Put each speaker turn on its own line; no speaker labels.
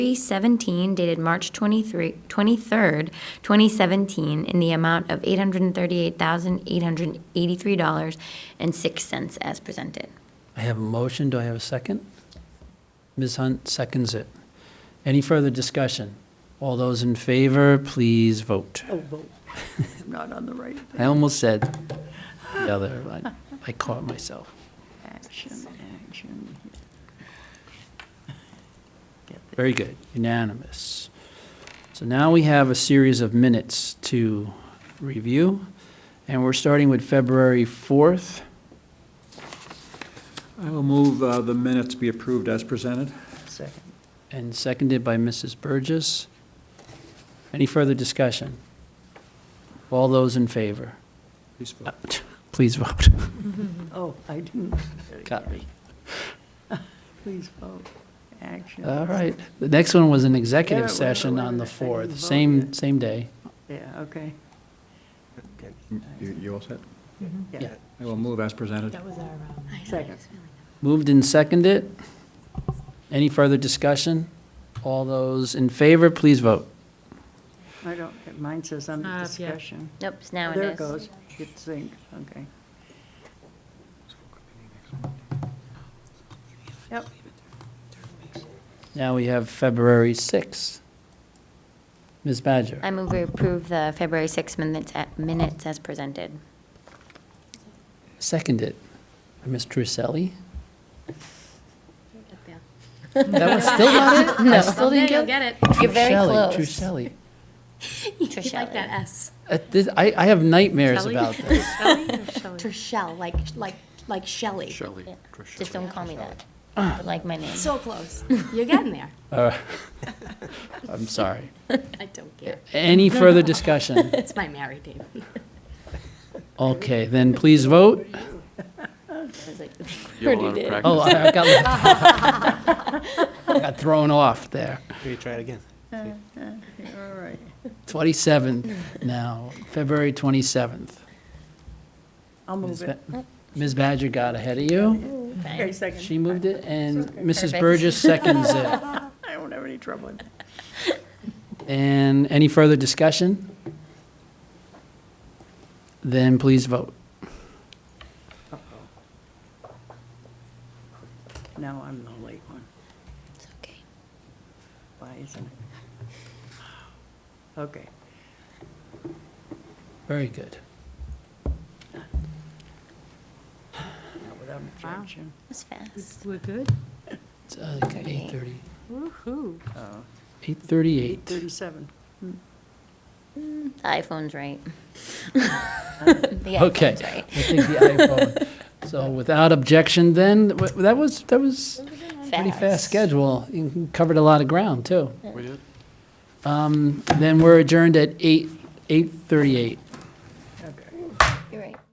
317 dated March 23 23rd, 2017, in the amount of $838,883.06 as presented.
I have a motion. Do I have a second? Ms. Hunt seconds it. Any further discussion? All those in favor, please vote.
Oh, vote. I'm Not on the right.
I almost said the other, but I caught myself.
Action, action.
Very good, unanimous. So now we have a series of minutes to review, and we're starting with February 4th.
I will move uh, the minutes be approved as presented.
Second.
And seconded by Mrs. Burgess. Any further discussion? All those in favor?
Please
Uh,
vote.
Please vote.
Oh, I didn't.
Got me.
Please vote. Action.
All right. The next one was an executive
Wait a minute, wait a
session on the
minute, wait a minute. I didn't
4th,
vote
same,
yet.
same day.
Yeah, okay.
You you all set?
Yeah.
I will move as presented.
That was our, um,
Second.
Moved and seconded. Any further discussion? All those in favor, please vote.
I don't, mine says under
Uh, yeah.
discussion.
Nope, it's now it
There it
is.
goes. It's synced, okay. Yep,
Now we have February 6th. Ms. Badger,
I move we approve the February 6 minutes, a- minutes as presented.
seconded. by Ms. Trucelli? That was still not it? I still didn't
Someday you'll
get
get it.
You're very
Trucelli,
close.
Trucelli.
You like that S.
Uh, this- I, I have nightmares
Shelley?
about this.
Shelley or Shelley?
Trishelle, like, like, like Shelley.
Yeah. Just don't call me that. I like my name.
So close.
You're getting there.
Uh, I'm sorry.
I don't care.
Any further discussion?
It's my married name.
Okay, then please vote.
I was like,
You're
already
out of
did.
practice.
Oh, I I got, I got thrown off there.
Maybe try it again.
all right.
27th now, February 27th.
I'll
Ms.
move it.
Ba- Ms. Badger got ahead of you.
Okay, second.
She moved it, and Mrs.
Perfect.
Burgess seconds it.
I don't have any trouble with that.
And any further discussion? Then please vote.
Now I'm the late one.
It's okay.
Why isn't it? Okay.
Very good.
Not without objection.
It was fast.
We're good.
It's, uh, 8:30,
Woohoo.
Oh,
8:38.
8:37.
The iPhone's right. The
Okay.
iPhone's
I
right.
think the iPhone. So without objection, then, w- that was, that was pretty fast schedule. You covered a lot of ground, too.
We did?
Um, Then we're adjourned at 8, 8:38.